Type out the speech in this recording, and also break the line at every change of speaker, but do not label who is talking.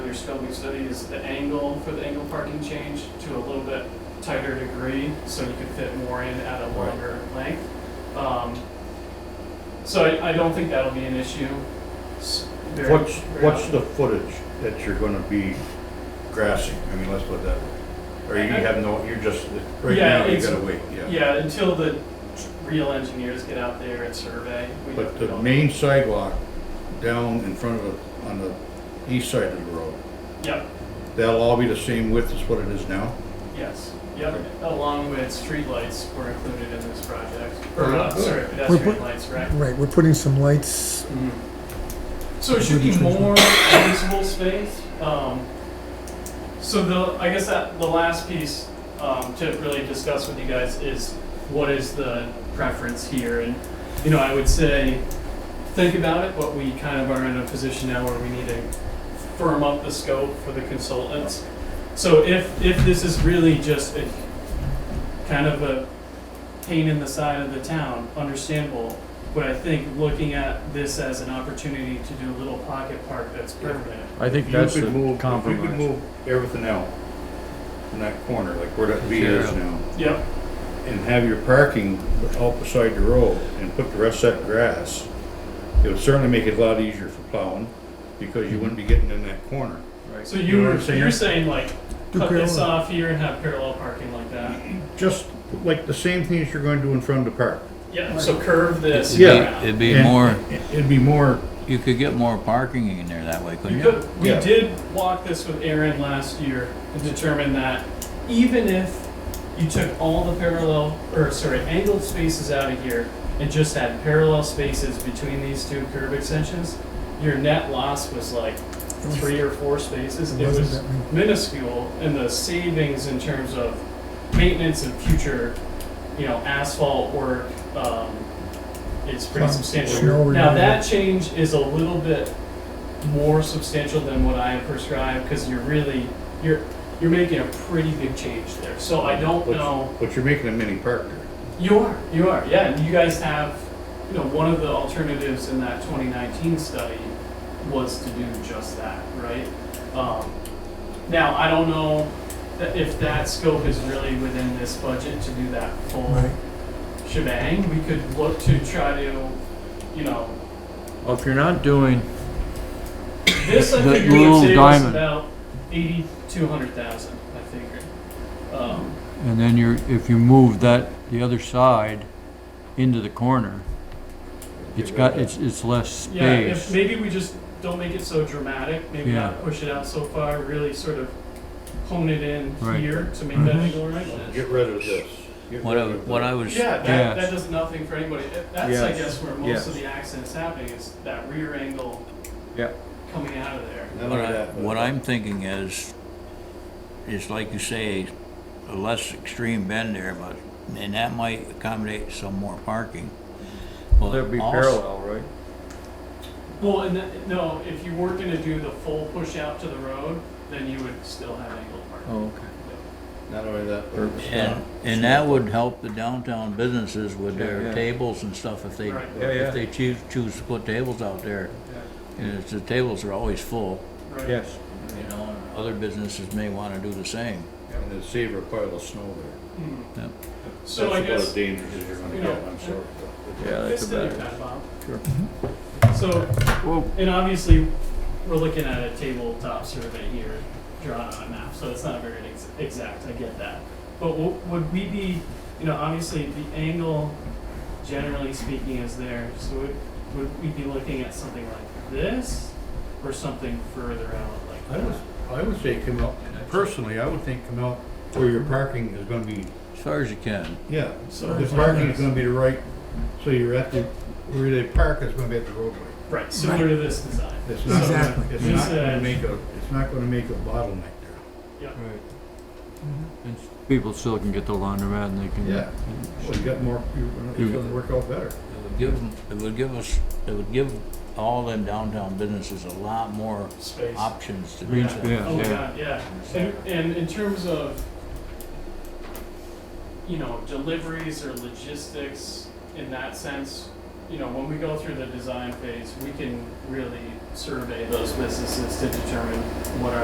your scoping study is the angle for the angle parking change to a little bit tighter degree, so you could fit more in at a
Right.
longer length. Um, So I, I don't think that'll be an issue. s- very-
What's,
very
what's
often.
the footage that you're gonna be grassing? I mean, let's put it that way. Or you have no, you're just, right
Yeah,
now, you
it's-
gotta wait, yeah.
Yeah, until the real engineers get out there and survey. we
But the
don't-
main sidewalk down in front of, the- on the east side of the road,
Yep,
that'll all be the same width as what it is now?
yes, yep, along with streetlights were included in this project, or,
Oh,
uh,
good.
sorry, pedestrian
put-
lights, right?
Right, we're putting some lights,
So it should be
Maybe change
more usable space. Um, so the, I guess that, the last piece, um, to really discuss with you guys is what is the preference here? And, you know, I would say, think about it, but we kind of are in a position now where we need to firm up the scope for the consultants. So if, if this is really just a, kind of a pain in the side of the town, understandable. But I think looking at this as an opportunity to do a little pocket park that's permanent.
I think
You
that's
could move-
the
You could
compromise.
move everything out in that corner, like where that V is
Yeah.
now,
Yep,
and have your parking out beside the road and put the rest of that grass. It would certainly make it a lot easier for plowing, because you wouldn't be getting in that corner.
so
You
you
know what
were,
I'm saying?
you're saying like,
Do
cut this
parallel.
off here and have parallel parking like that?
Just like the same thing that you're going to do in front of the park.
Yeah, so curve this.
Yeah.
around.
It'd be
And
more,
It'd be more,
you could get more parking in there that way, couldn't
You
you?
could, we
Yeah.
did walk this with Aaron last year and determined that even if you took all the parallel, or sorry, angled spaces out of here and just had parallel spaces between these two curb extensions, your net loss was like
was-
three or four spaces.
it
It
wasn't
was
that many.
minuscule and the savings in terms of maintenance and future, you know, asphalt work, um, it's pretty
Some
substantial.
snow
Now,
removal.
that change is a little bit more substantial than what I have prescribed, because you're really, you're, you're making a pretty big change there, so I don't know.
but you're making a mini park there.
You are, you are, yeah, and you guys have, you know, one of the alternatives in that twenty nineteen study was to do just that, right? Um, now, I don't know that if that scope is really within this budget to do that full
Right.
shebang, we could look to try to, you know,
Well, if you're not doing,
This I
The
figure would
little
save us
diamond.
about eighty, two hundred thousand, I figure. Um,
and then you're, if you move that, the other side into the corner, it's got, it's, it's less
yeah, if,
space.
maybe we just don't make it so dramatic, maybe not push it out so far, really sort of hone it in
Right. Mm-hmm.
here to make that angle right.
Get rid of this. Get
What I,
rid of
what I
that.
was,
Yeah, that,
Yes.
that does nothing for anybody. That- That's, I
Yes.
guess, where most
Yes.
of the accident's happening, is that rear angle
Yep.
coming out of there.
None of
what I,
that.
what I'm thinking is, is like you say, a less extreme bend there, but, and that might accommodate some more parking. Well,
There'd be
also-
parallel, right?
Well, and that, no, if you were gonna do the full push out to the road, then you would still have angled parking.
Oh, okay.
Not only that, but it's
And, and that would help the downtown businesses with
Yeah,
their
yeah.
tables and stuff if they,
Right.
Yeah,
if
yeah,
they choose, choose to put tables out there. And it's, the tables are always full,
Right.
yes.
you know, and other businesses may wanna do the same.
and it'd save a pile of snow there.
Hmm.
Yeah.
So I
That's about as
guess,
dangerous as you're gonna
you know,
get, I'm sorry.
Yeah,
this
that's
did your
about
bad,
it.
Bob.
Uh, Sure.
So,
Well,
and obviously, we're looking at a tabletop survey here, drawn on a map, so it's not very ex- exact, I get that. But w- would we be, you know, obviously, the angle, generally speaking, is there, so would, would we be looking at something like this? Or something further out like
I
that?
was, I would say come out, personally, I would think come out where your parking is gonna be,
As far as you can.
yeah.
So
The
it's like
parking
this.
is gonna be the right, so you're at the, where they park is gonna be at the roadway.
Right, similar to this design.
It's not, gonna-
Exactly.
it's not
Yes,
gonna
uh,
make a, it's not gonna make a bottleneck there.
right. And s- people still can get to laundromat and they can.
Yeah. Well, you got more, you- it's gonna work out better.
It would give, 'em- it would give us, it would give all them downtown businesses a lot more
Space.
options to do
Green
that.
space,
Oh my
yeah.
god, yeah. And, and in terms of, you know, deliveries or logistics in that sense, you know, when we go through the design phase, we can really survey those businesses to determine what our